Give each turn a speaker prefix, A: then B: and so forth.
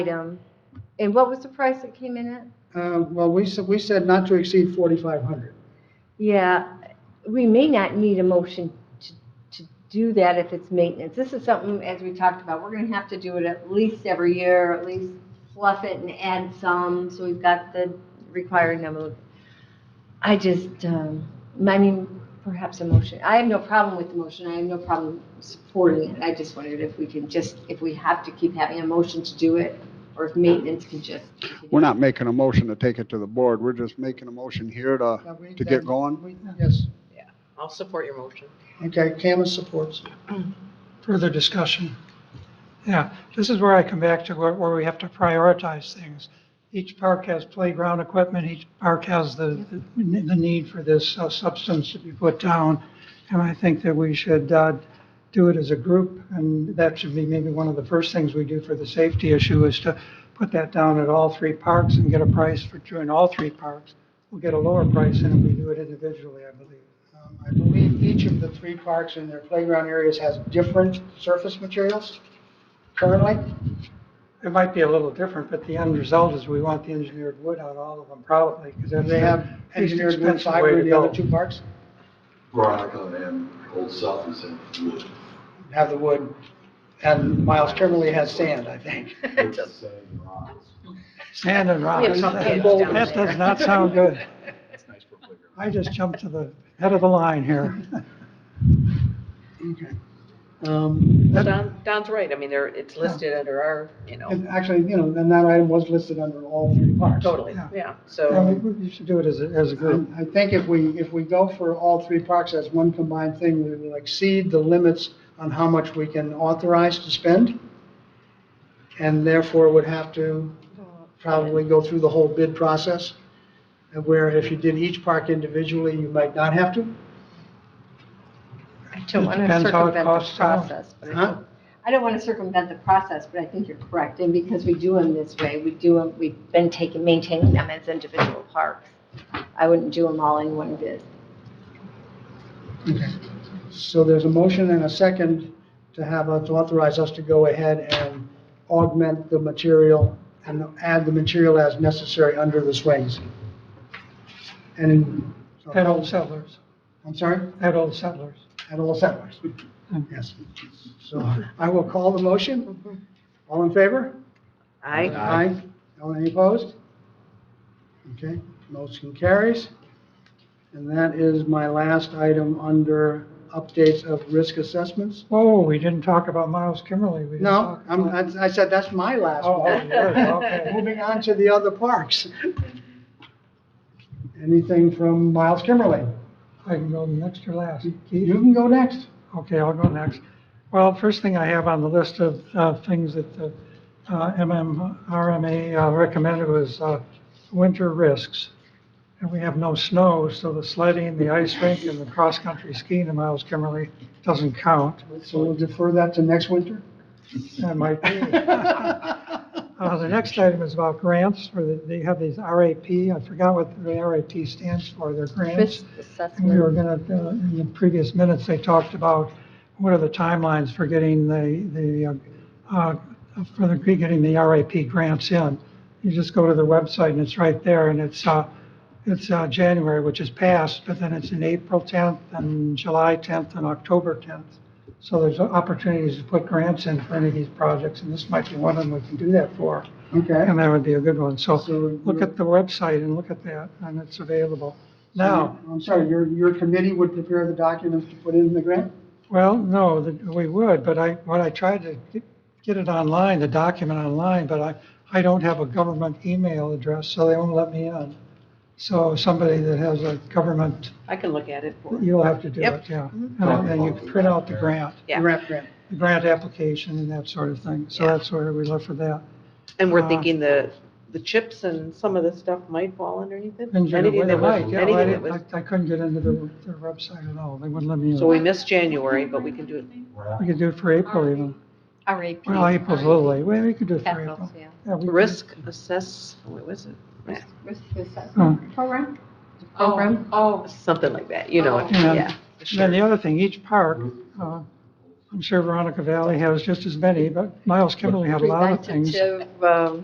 A: item. And what was the price that came in at?
B: Uh, Well, we said, we said not to exceed 4,500.
A: Yeah, we may not need a motion to, to do that if it's maintenance. This is something, as we talked about, we're gonna have to do it at least every year, at least fluff it and add some, so we've got the required number. of- I just, um, I mean, perhaps a motion. I have no problem with the motion. I have no problem supporting it. I just wondered if we can just, if we have to keep having a motion to do it, or if maintenance can just.
C: We're not making a motion to take it to the board, we're just making a motion here to,
B: Now, we-
C: to get going.
B: we- Yes,
D: I'll support your motion.
B: okay, Cameron supports.
E: further discussion. Yeah, this is where I come back to where, where we have to prioritize things. Each park has playground equipment, each park has the, the the need for this uh, substance to be put down. And I think that we should, uh, do it as a group, and that should be maybe one of the first things we do for the safety issue is to put that down at all three parks and get a price for doing all three parks. We'll get a lower price than if we do it individually, I believe.
B: Um, I believe each of the three parks and their playground areas has different surface materials currently.
E: It might be a little different, but the end result is we want the engineered wood on all of them probably, because that's
B: They
E: the
B: have
E: least
B: engineered wood
E: expensive way
B: fiber
E: to
B: in the other
E: go.
B: two parks,
F: Veronica and Old South is in wood.
B: have the wood, and Miles Kimmerly has sand, I think.
F: It's the same rocks.
E: Sand and
A: We
E: rocks.
A: have some
E: That
A: kids
B: down
E: that
A: there.
E: does not sound good.
F: That's nice for playground.
E: I just jumped to the head of the line here.
B: Okay. Um, that-
D: Don, Don's right, I mean, there, it's listed under our, you know,
B: And actually, you know, and that item was listed under all three parks.
D: totally,
E: Yeah.
D: yeah,
E: Yeah, we-
D: so,
E: we- You should do it as a, as a group.
B: Um, I think if we, if we go for all three parks as one combined thing, we will exceed the limits on how much we can authorize to spend, and therefore would have to probably go through the whole bid process, and where if you did each park individually, you might not have to.
A: I don't
E: It
A: want to
E: depends how it
A: circumvent the
E: costs out.
A: process, but I
B: Huh?
A: don't- I don't want to circumvent the process, but I think you're correct, and because we do them this way, we do them, we've been taking, maintaining them as individual parks. I wouldn't do them all in one bid.
B: So there's a motion and a second to have, us- to authorize us to go ahead and augment the material and add the material as necessary under the swings. And, in-
E: At Old Settlers,
B: I'm sorry?
E: at Old Settlers. Hmm.
B: at all settlers. Yes. So I will call the motion. All in favor?
D: I,
B: Aye. All Any opposed? Okay, motion carries. And that is my last item under updates of risk assessments.
E: Whoa, Oh, we didn't talk about Miles Kimmerly. We didn't
B: No,
E: talk
B: I'm,
E: about-
B: I I said that's my last
E: Oh, oh,
B: one.
E: yours, okay.
B: Moving on to the other parks. Anything from Miles Kimmerly?
E: I can go next or last. Keith?
B: You can go next.
E: Okay, I'll go next. Well, first thing I have on the list of uh, things that the uh, MMRMA uh, recommended was uh, winter risks. And we have no snow, so the sledding, the ice rink, and the cross-country skiing in Miles Kimmerly doesn't count.
B: So we'll defer that to next winter.
E: That might be. Uh, The next item is about grants, where they- they have these RAP, I forgot what the RAP stands for, they're grants.
A: Risk
E: And we were
A: assessment,
E: gonna, uh, in the previous minutes, they talked about what are the timelines for getting the, the, uh, uh, for the, getting the RAP grants in. You just go to the website and it's right there and it's, uh, it's, uh, January, which is past, but then it's in April tenth and July tenth and October tenth. So there's opportunities to put grants in for any of these projects and this might be one of them we can do that for.
B: Okay.
E: And that would be a good one. So
B: So
E: look at the website and look at that and it's available. Now,
B: I'm sorry, your, your committee would prepare the documents to put in the grant?
E: Well, no, that- we would, but I, when I tried to get- get it online, the document online, but I, I don't have a government email address, so they won't let me in. So somebody that has a government,
D: I can look at it for you.
E: you'll have to do
D: Yep.
E: it, yeah. And then you print out the grant,
D: Yeah.
B: Grant, grant.
E: the grant application and that sort of thing. So
D: Yeah.
E: that's where we left for that.
D: And we're
E: Uh,
D: thinking the, the chips and some of the stuff might fall underneath it?
E: And you're
D: Anything that
E: right,
D: was,
E: yeah, well, I
D: anything that was,
E: didn't- I I couldn't get into their, their website at all. They wouldn't let me
D: so we
E: in.
D: missed January, but we can do it.
E: We could do it for April even.
A: RAP.
E: Well, April's a little late. Well, we could do it for
A: Capitals,
E: April.
A: yeah.
E: Yeah, we could-
D: Risk assess, what was it?
A: Risk
E: Oh.
A: assessment program? Program?
D: Oh. Something like that, you know, it.
E: Yeah.
D: yeah.
E: And Then the other thing, each park uh, I'm sure Veronica Valley has just as many, but Miles Kimberly had a lot of
A: Prevented
E: things.
A: to, um,